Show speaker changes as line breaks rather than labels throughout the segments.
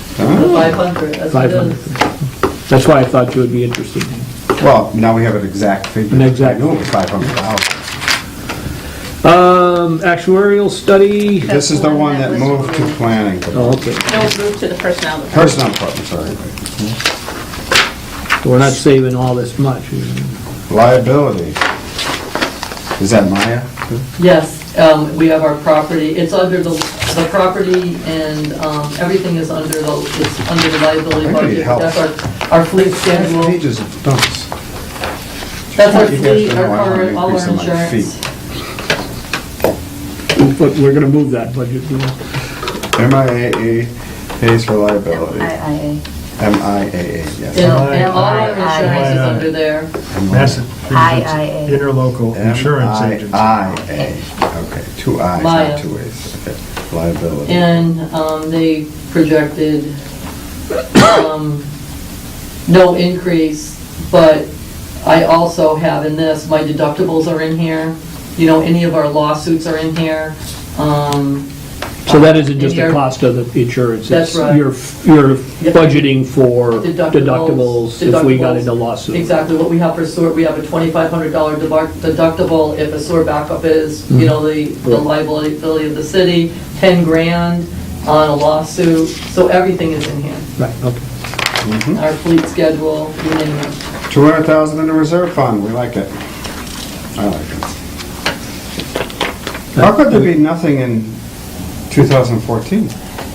five hundred, as it
Five hundred.
is.
That's why I thought you would be interested.
Well, now we have an exact figure.
An exact-
I knew it was 500,000.
Um, actuarial study,
This is the one that moved to planning,
oh, okay,
No, we moved to the personnel department.
personnel department, sorry.
we're not saving all this much.
Liability. Is that Maya?
Yes, um, we have our property, it's under the, the property and, um, everything is under the, it's under the liability
I need
budget.
help.
That's our, our fleet schedule,
Pages of notes.
that's our
You guys
fleet,
don't
our
know I wanna
car, all
increase
our
on my
insurance.
But we're gonna move that budget, you know.
MIAA E pays for liability. MIAA,
Yeah,
E, yes.
and all our
I- I-
insurance is
I-
under there.
That's it.
IIA.
Interlocal Insurance Agency.
MIIA, E. okay, two I's,
Maya.
not two A's. Okay. Liability.
And um, they projected um, no increase, but I also have in this, my deductibles are in here, you know, any of our lawsuits are in here. um,
So that isn't just
and
the
your
cost of the insurance?
That's
it's
right.
You're, you're
Yep.
budgeting for deductibles if we got
deductibles.
into lawsuit.
Exactly, what we have for sewer, we have a $2,500 debar- deductible if a sewer backup is, you know, the the liability of the city, 10 grand on a lawsuit, so everything is in here.
Right, okay.
Our fleet schedule, you name it.
200,000 in the reserve fund, we like it. I like it. How could there be nothing in 2014?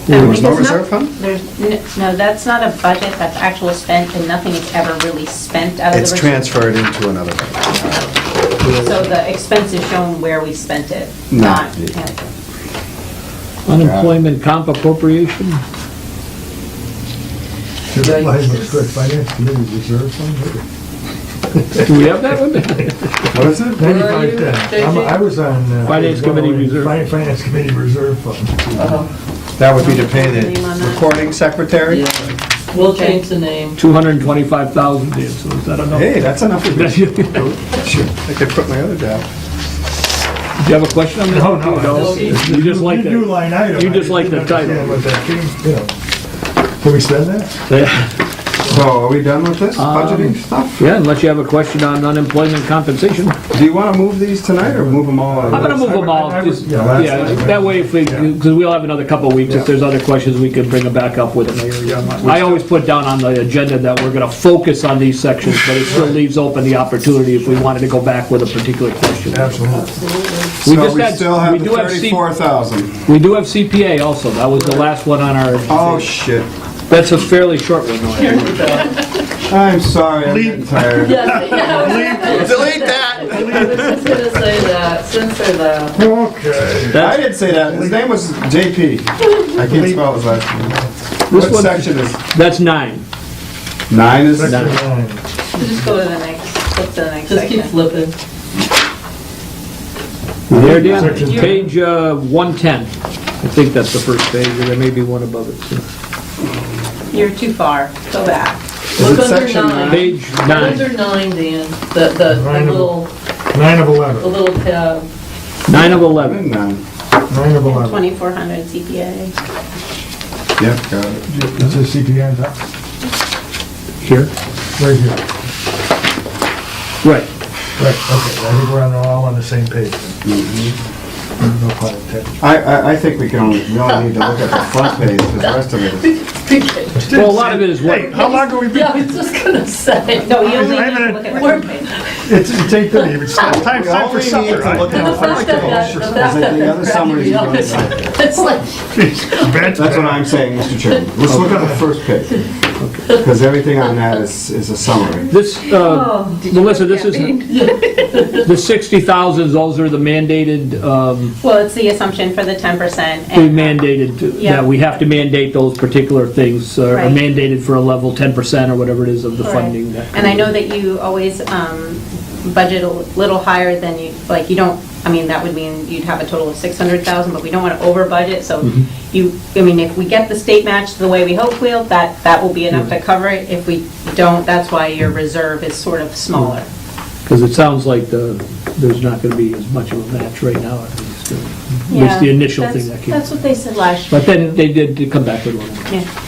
There was no
Because
reserve fund?
There's, n- no, that's not a budget, that's actual spent, and nothing is ever really spent out of the.
It's
reserve.
transferred into another. fund.
So the expense is shown where we spent it,
No.
not, yeah.
Unemployment comp appropriation?
Should have lied with good finance committee reserve fund.
Do we have that one?
What is it?
Where are you,
Ninety-five thousand. I'm- I was on. uh,
Finance Committee Reserve.
Fin- Finance Committee Reserve Fund.
Uh-huh.
That would be to pay
Name on
the
that.
recording secretary?
Yeah. We'll change the name.
225,000 did, so is that enough?
Hey, that's enough of me.
Do you
I could quit my other job.
have a question on that?
No, no, I just-
You just like
You do
that?
line item.
you
I
just like
didn't
the title.
understand what that came, you know. Can we spend that?
So are we done with this
Um,
budgeting stuff?
Yeah, unless you have a question on unemployment compensation.
Do you want to move these tonight or move them all?
I'm gonna move them all,
I would-
just,
yeah, that's
yeah,
fine.
that way if we, because we'll have another couple of weeks,
Yeah.
if there's other questions, we can bring them back up with it. I always put down on the agenda that we're gonna focus on these sections, but it still leaves open the opportunity if we wanted to go back with a particular question.
Absolutely.
We
So
just
we
had-
still have
we
the
do have C-
34,000.
We do have CPA also, that was the last one on our,
Oh, shit.
that's a fairly short one. though.
I'm sorry, I'm getting tired.
Yes, yeah, I was-
Delete that!
I was just gonna say that, censor that.
Okay.
I didn't say that. His name was JP. I can't spell his last name.
This
What
one-
section is?
That's nine.
Nine is?
Section nine.
Just go to the next, flip to the next
Just keep
section.
flipping.
There, Dan,
Section ten.
page uh, 110. I think that's the first page, or there may be one above it. so.
You're too far, go back.
Look
it
under
section
nine.
Page
Look Under
nine,
nine, Dan, the, the- the
Nine of-
little,
Nine of
the
11,
little tab.
nine of
Nine
11.
and Nine.
nine of 11.
2,400 CPA.
Yep, got it.
This is CPI on top,
Here?
right here.
Right.
Right, okay, I think we're on, all on the same page. then.
Mm-hmm.
No problem, Ted.
I, I, I think we can only, we only need to look at the front page, 'cause the rest of it is.
Well, a lot of it is what,
How long have we
Yeah, I was just gonna say.
No, you
I
only
haven't-
need to look at one page.
It's it's 8:30, it's time time
We
for
only need
supper.
to look at the front page, because at the other summary is going to-
It's like,
That's
That's what I'm saying, Mr. Chairman. Let's look at the first page. Because everything on that is, is a summary.
this, uh,
Oh,
Melissa, this isn't, the 60,000, those are the mandated, um,
Well, it's the assumption for the 10% and.
we mandated, to-
Yeah.
that we have to mandate those particular things, uh, are
Right.
mandated for a level 10% or whatever it is of the
Correct.
funding. that-
And I know that you always um, budget a little higher than you, like, you don't, I mean, that would mean you'd have a total of 600,000, but we don't want to over budget, so
Mm-hmm.
you, I mean, if we get the state match the way we hope we'll, that, that will be enough to
Mm-hmm.
cover it. If we don't, that's why your reserve is sort of smaller.
Because it sounds like the, there's not going to be as much of a match right now, at least. uh, At least
Yeah,
the initial
that's-
thing that came.
That's what they said last year.
But then they did come back with one.
Yeah.